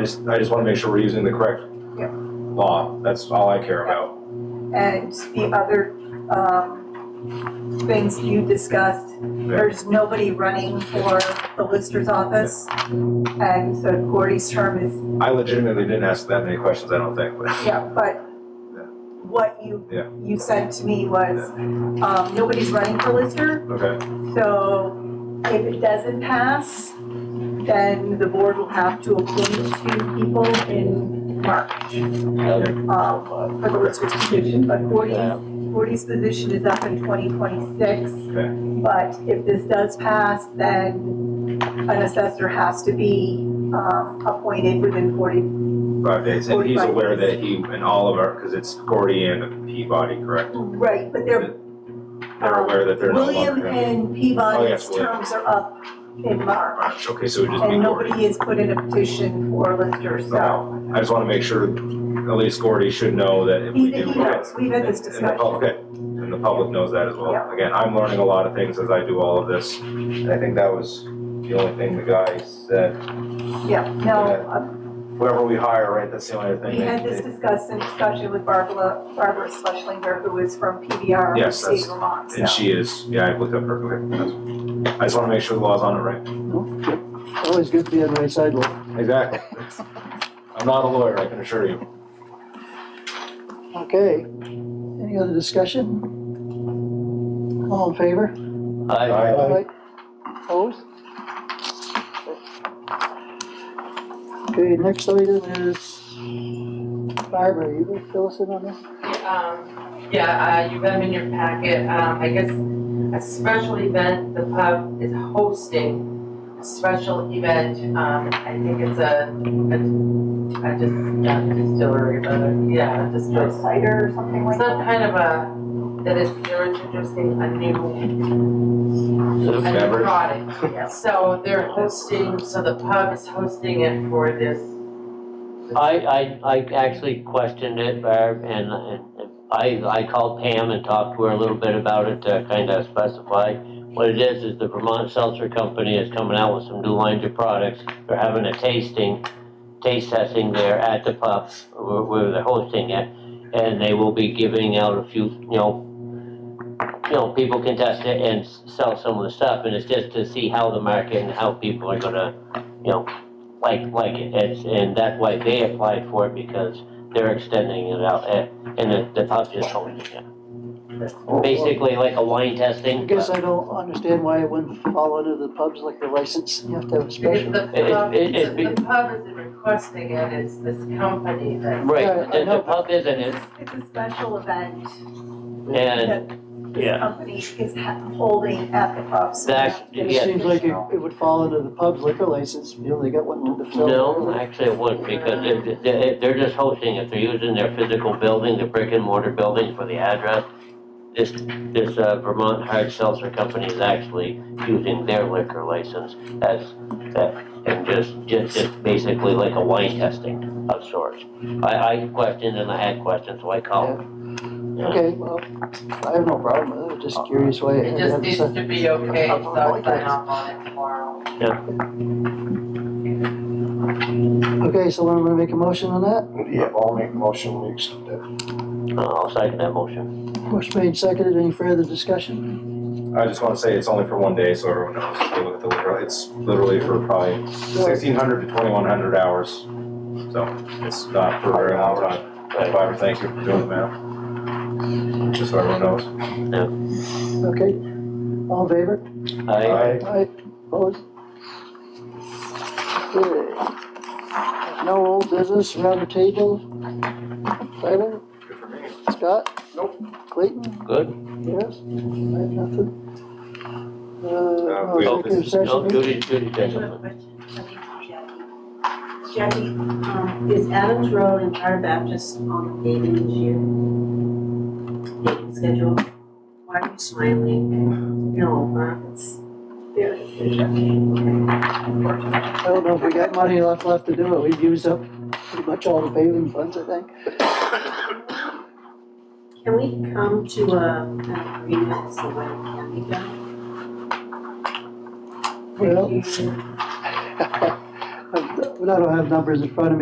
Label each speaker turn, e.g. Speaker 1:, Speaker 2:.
Speaker 1: I just, I just wanna make sure we're using the correct
Speaker 2: Yeah.
Speaker 1: law, that's all I care about.
Speaker 2: And the other, um, things you discussed, there's nobody running for the Lister's office. And so Gordy's term is,
Speaker 1: I legitimately didn't ask that many questions, I don't think, but,
Speaker 2: yeah, but what you,
Speaker 1: Yeah.
Speaker 2: you said to me was, um, nobody's running for Lister,
Speaker 1: okay,
Speaker 2: so if it doesn't pass, then the board will have to appoint two people in March. uh, for the lister's position, but Gordy's, Gordy's position is up in 2026.
Speaker 1: Okay.
Speaker 2: But if this does pass, then an assessor has to be um, appointed within 40.
Speaker 1: five days, and he's
Speaker 2: 45
Speaker 1: aware that he, and all of our, cause it's Gordy and Peabody, correct?
Speaker 2: Right, but they're,
Speaker 1: They're aware that they're no longer.
Speaker 2: Uh, William and
Speaker 1: Oh,
Speaker 2: Peabody's
Speaker 1: yes, William.
Speaker 2: terms are up in March.
Speaker 1: Alright, Okay, so it would just be
Speaker 2: And
Speaker 1: Gordy,
Speaker 2: nobody has put in a petition for Lister, so
Speaker 1: I just wanna make sure, at least Gordy should know that if we
Speaker 2: he
Speaker 1: do.
Speaker 2: he knows, we've had this
Speaker 1: And- And the
Speaker 2: discussion.
Speaker 1: public, and the public knows that as well.
Speaker 2: Yeah.
Speaker 1: Again, I'm learning a lot of things as I do all of this, and I think that was the only thing the guy said.
Speaker 2: Yeah, no, uh,
Speaker 1: Whoever we hire, right, that's the only other thing.
Speaker 2: We had this
Speaker 1: they-
Speaker 2: discussed in discussion with Barbara, Barbara Schlesinger, who is from PBR, in the
Speaker 1: Yes,
Speaker 2: state
Speaker 1: that's-
Speaker 2: of Vermont, so.
Speaker 1: And she is, yeah, I looked up her, okay, that's- I just wanna make sure the law's on it right.
Speaker 3: Always good to be on the right side, Lou.
Speaker 1: Exactly. I'm not a lawyer, I can assure you.
Speaker 3: Okay, any other discussion? All in favor?
Speaker 1: Aye.
Speaker 3: Opposed? Okay, next item is, Barbara, you gonna fill us in on this?
Speaker 4: Um, yeah, uh, you got them in your packet, um, I guess a special event, the pub is hosting a special event, um, I think it's a, a, a dis, not a distillery, but, a- yeah, a
Speaker 2: Or
Speaker 4: distillery.
Speaker 2: cider or something like
Speaker 4: It's
Speaker 2: that.
Speaker 4: not kind of a, that is, they're introducing a new, a new
Speaker 1: Beverage.
Speaker 4: product.
Speaker 2: Yes.
Speaker 4: So they're hosting, so the pub is hosting it for this.
Speaker 5: I, I, I actually questioned it, Barb, and, and I, I called Pam and talked to her a little bit about it to kind of specify. What it is, is the Vermont Seltzer Company is coming out with some new lines of products. They're having a tasting, taste testing there at the pub where, where they're hosting it. And they will be giving out a few, you know, you know, people can test it and s- sell some of the stuff. And it's just to see how the market and how people are gonna, you know, like, like it. It's, and that's why they applied for it because they're extending it out and, and the, the pub just holding it. Basically like a wine testing.
Speaker 3: I guess I don't understand why it wouldn't fall under the pubs like the license, you have to have a
Speaker 4: Because
Speaker 3: special.
Speaker 4: the
Speaker 5: It-
Speaker 4: pub,
Speaker 5: it- it-
Speaker 4: the pub isn't requesting it, it's this company that.
Speaker 3: Yeah,
Speaker 5: Right,
Speaker 3: I
Speaker 5: the,
Speaker 3: know,
Speaker 5: the pub isn't it,
Speaker 2: It's a special event
Speaker 5: and
Speaker 2: that this
Speaker 5: yeah.
Speaker 2: company is ha- holding at the pub. so
Speaker 5: That's-
Speaker 2: that
Speaker 3: It
Speaker 2: is
Speaker 5: yeah.
Speaker 3: seems like it,
Speaker 2: additional.
Speaker 3: it would fall under the pub's liquor license, you only got one to fill.
Speaker 5: no, actually it wouldn't because it- it- they're just hosting it. They're using their physical building, the brick and mortar building for the address. This, this uh, Vermont Hard Seltzer Company is actually using their liquor license as, that- and just, just, just basically like a wine testing of sorts. I, I questioned and I had questions, so I called. Yeah.
Speaker 3: Okay, well, I have no problem with it, I'm just curious why.
Speaker 4: It just needs to be okay, so I'll sign off on it tomorrow.
Speaker 3: Okay, so I'm gonna make a motion on that,
Speaker 6: Yeah, I'll make a motion, we accept it.
Speaker 5: Uh, I'll second that motion.
Speaker 3: motion made, seconded, any further discussion?
Speaker 1: I just wanna say it's only for one day, so everyone knows, if you look at the liquor, it's literally for probably sixteen hundred to twenty-one hundred hours. So it's not for a very long time. Barbara, thank you for doing the math. Just so everyone knows.
Speaker 3: Okay, all in favor?
Speaker 5: I,
Speaker 3: Aye, opposed? Okay. No old business, round the table. Tyler?
Speaker 1: Good for me.
Speaker 3: Scott? Nope. Clayton?
Speaker 5: good.
Speaker 3: Yes? I have nothing. Uh,
Speaker 1: we-
Speaker 3: no executive
Speaker 5: No,
Speaker 3: session.
Speaker 5: Judy, Judy,
Speaker 7: I have a
Speaker 5: gentlemen.
Speaker 7: question. I think for Jackie, Jackie, um, is Adams Road and Fire Baptist on the paving this year? Paving schedule? Why are you smiling? No, uh, it's their decision.
Speaker 3: I don't know if we got money left, left to do it, we've used up pretty much all the paving funds, I think.
Speaker 7: Can we come to a, an agreement so that it can be done?
Speaker 3: Well, I I don't have numbers in front of me.